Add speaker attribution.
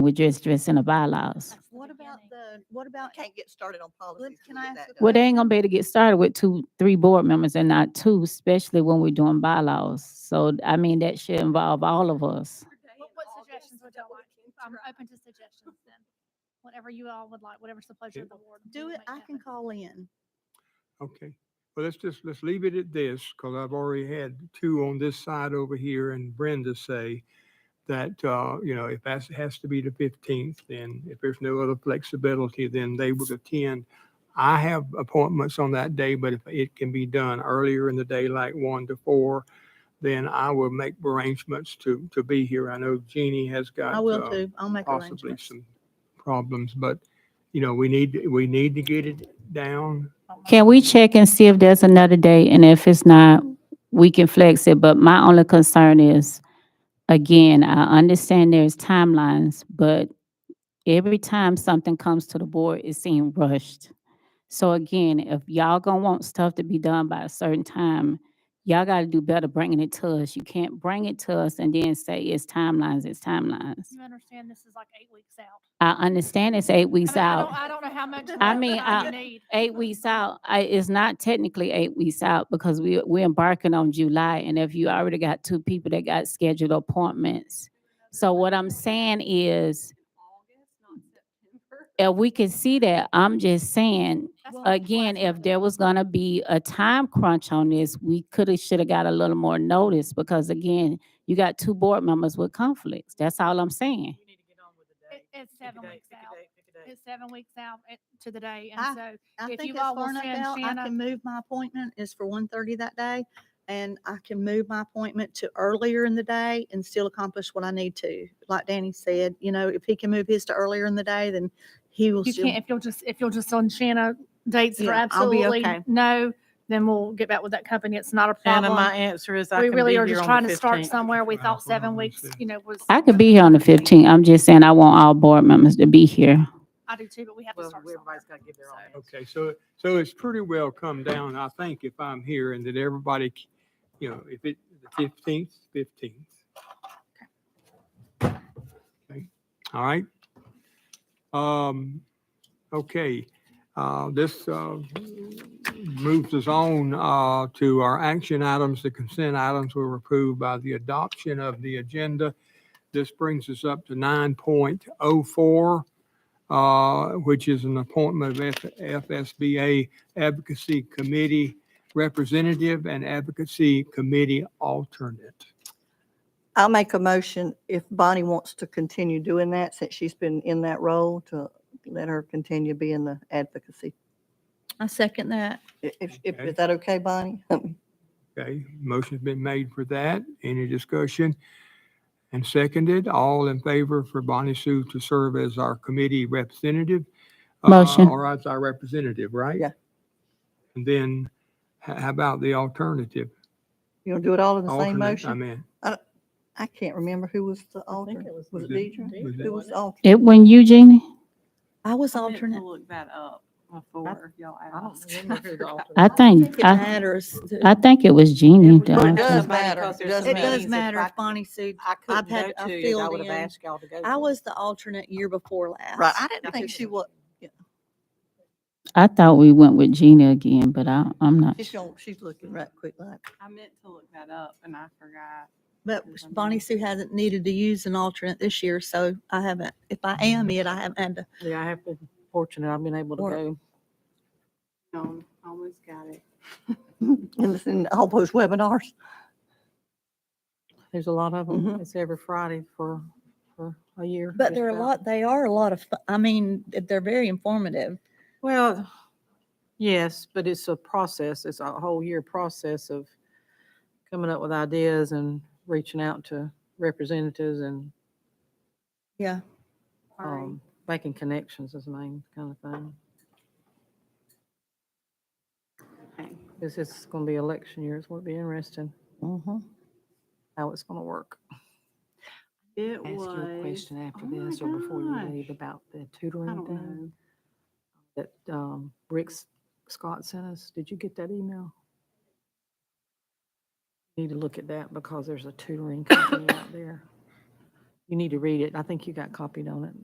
Speaker 1: We just, just in the bylaws.
Speaker 2: That's the What about the, what about,
Speaker 3: Can't get started on policies.
Speaker 2: can
Speaker 3: we'll
Speaker 2: I
Speaker 3: get
Speaker 2: ask
Speaker 3: that
Speaker 2: a
Speaker 3: done.
Speaker 1: Well, they ain't gonna be able to get started with two, three board members and not two, especially when we're doing bylaws. So, I mean, that should involve all of us.
Speaker 4: What, what suggestions would y'all like? I'm open to suggestions then. Whatever you all would like, whatever's the pleasure of the board. we
Speaker 2: do
Speaker 4: will
Speaker 2: it,
Speaker 4: make
Speaker 2: I can
Speaker 4: happen.
Speaker 2: call in.
Speaker 5: Okay, well, let's just, let's leave it at this, because I've already had two on this side over here and Brenda say that, uh, you know, if that has to be the fifteenth, then if there's no other flexibility, then they would attend. I have appointments on that day, but if it can be done earlier in the day, like one to four, then I will make arrangements to, to be here. I know Jeannie has got.
Speaker 2: I
Speaker 5: uh,
Speaker 2: will too. I'll make
Speaker 5: possibly
Speaker 2: arrangements.
Speaker 5: some problems, but, you know, we need, we need to get it down.
Speaker 1: Can we check and see if there's another day? And if it's not, we can flex it. But my only concern is, again, I understand there's timelines, but every time something comes to the board, it seems rushed. So again, if y'all gonna want stuff to be done by a certain time, y'all gotta do better bringing it to us. You can't bring it to us and then say it's timelines, it's timelines.
Speaker 4: You understand this is like eight weeks out.
Speaker 1: I understand it's eight
Speaker 4: I
Speaker 1: weeks
Speaker 4: mean, I don't-
Speaker 1: out.
Speaker 4: I don't know how much.
Speaker 2: I
Speaker 4: more
Speaker 1: mean,
Speaker 4: time
Speaker 1: I-
Speaker 4: you need.
Speaker 1: eight weeks out, I, it's not technically eight weeks out because we, we're embarking on July. And if you already got two people that got scheduled appointments. So what I'm saying is, if we can see that, I'm just saying,
Speaker 4: That's what I'm
Speaker 1: again,
Speaker 4: asking.
Speaker 1: if there was gonna be a time crunch on this, we could have, should have got a little more notice because again, you got two board members with conflicts. That's all I'm saying.
Speaker 6: You need to get on with the day.
Speaker 4: It- It's
Speaker 6: Pick a
Speaker 4: seven
Speaker 6: date,
Speaker 4: weeks
Speaker 6: pick a
Speaker 4: out.
Speaker 6: date, pick a date.
Speaker 4: It's seven weeks out eh, to the day.
Speaker 2: I-
Speaker 4: And so
Speaker 2: I
Speaker 4: if
Speaker 2: think
Speaker 4: you
Speaker 2: as
Speaker 4: all will
Speaker 2: far enough
Speaker 4: send
Speaker 2: out, I
Speaker 4: Shanna-
Speaker 2: can move my appointment is for 1:30 that day. And I can move my appointment to earlier in the day and still accomplish what I need to. Like Danny said, you know, if he can move his to earlier in the day, then he will
Speaker 4: you
Speaker 2: still.
Speaker 4: can't, if you'll just, if you'll just on Shanna dates for
Speaker 2: Yeah, I'll be
Speaker 4: absolutely
Speaker 2: okay.
Speaker 4: no, then we'll get back with that company. It's not a
Speaker 6: Anna,
Speaker 4: problem.
Speaker 6: answer is
Speaker 4: We really are
Speaker 6: here
Speaker 4: just
Speaker 6: on
Speaker 4: trying
Speaker 6: the
Speaker 4: to start
Speaker 6: 15th.
Speaker 4: somewhere. We
Speaker 5: Wow,
Speaker 4: thought
Speaker 5: hold on,
Speaker 4: seven
Speaker 5: let me
Speaker 4: weeks,
Speaker 5: see.
Speaker 4: you know, was.
Speaker 1: I could be here on the fifteenth. I'm just saying I want all board members to be here.
Speaker 4: I do too, but we have to
Speaker 6: Well,
Speaker 4: start somewhere.
Speaker 6: everybody's got to give their
Speaker 4: So-
Speaker 6: own.
Speaker 5: Okay, so, so it's pretty well come down, I think, if I'm here and that everybody, c- you know, if it, the fifteenth, fifteenth. Okay, all right. Um, okay, uh, this, uh, moves us on, uh, to our action items. The consent items were approved by the adoption of the agenda. This brings us up to nine point oh four uh, which is an appointment of F- FSBA Advocacy Committee Representative and Advocacy Committee Alternate.
Speaker 7: I'll make a motion if Bonnie wants to continue doing that, since she's been in that role, to let her continue being the advocacy.
Speaker 2: I second that.
Speaker 7: I- If, if,
Speaker 5: Okay.
Speaker 7: is that okay, Bonnie?
Speaker 5: Okay, motion's been made for that. Any discussion? And seconded, all in favor for Bonnie Sue to serve as our committee representative? uh,
Speaker 1: Motion.
Speaker 5: Or as our representative, right?
Speaker 7: Yeah.
Speaker 5: And then h- how about the alternative?
Speaker 7: You want to do it all in the same
Speaker 5: Alternate, I
Speaker 7: motion?
Speaker 5: mean.
Speaker 7: I can't remember who was the alternate.
Speaker 3: it was
Speaker 7: Was it
Speaker 5: Deidre.
Speaker 7: Deidre?
Speaker 5: Was it-
Speaker 7: Who was the alternate?
Speaker 1: It, when you, Jeannie?
Speaker 2: I was
Speaker 8: I meant to
Speaker 2: alternate.
Speaker 8: Look that up before y'all
Speaker 3: I
Speaker 8: asked.
Speaker 3: don't remember who the alternate
Speaker 1: I think,
Speaker 2: It
Speaker 1: I,
Speaker 2: matters. to-
Speaker 1: I think it was Jeannie. that
Speaker 7: Well,
Speaker 1: I
Speaker 7: it
Speaker 1: think.
Speaker 7: does matter.
Speaker 3: because
Speaker 7: It
Speaker 3: there's
Speaker 7: does
Speaker 3: so many.
Speaker 2: It
Speaker 7: matter.
Speaker 2: does
Speaker 3: if
Speaker 2: matter
Speaker 3: I
Speaker 2: if Bonnie Sue.
Speaker 3: I couldn't
Speaker 2: had-
Speaker 3: go
Speaker 2: I
Speaker 3: to you, I
Speaker 2: filled
Speaker 3: would have
Speaker 2: in.
Speaker 3: asked y'all to go.
Speaker 2: I
Speaker 3: to.
Speaker 2: was the alternate year before last.
Speaker 7: Right, I didn't
Speaker 3: think
Speaker 7: think she
Speaker 3: so.
Speaker 7: was,
Speaker 1: I thought we went with Gina again, but I, I'm not.
Speaker 7: she's,
Speaker 1: sure.
Speaker 7: on- she's looking right quick like.
Speaker 8: I meant to look that up and I forgot.
Speaker 2: But Bonnie Sue hasn't needed to use an alternate this year, so I haven't, if I am it, I haven't had to.
Speaker 3: Yeah, I have been fortunate. I've been able to
Speaker 2: Or-
Speaker 3: go.
Speaker 8: Um, almost got it.
Speaker 7: And it's in all those webinars.
Speaker 3: There's a lot of them.
Speaker 8: Mm-hmm.
Speaker 7: Mhm.
Speaker 3: It's every Friday for, for a year.
Speaker 2: But
Speaker 3: just
Speaker 2: they're a
Speaker 3: about.
Speaker 2: lot, they are a lot of, fu- I mean, they're very informative.
Speaker 3: Well, yes, but it's a process. It's a whole year process of coming up with ideas and reaching out to representatives and
Speaker 2: Yeah.
Speaker 8: Sorry.
Speaker 3: um, making connections is the main kind of thing.
Speaker 8: Okay.
Speaker 3: This is going to be election year. It's going to be interesting
Speaker 7: Mhm.
Speaker 3: how it's going to work.
Speaker 8: It
Speaker 6: Ask
Speaker 8: was.
Speaker 6: you a question after
Speaker 8: oh my
Speaker 6: this or before you leave
Speaker 8: gosh.
Speaker 6: about the
Speaker 8: I
Speaker 6: tutoring
Speaker 8: don't
Speaker 6: thing
Speaker 8: know.
Speaker 3: That um, Rick S- Scott sent us, did you get that email? Need to look at that because there's a tutoring company out there.
Speaker 6: You need to read it. I think you got copied on it.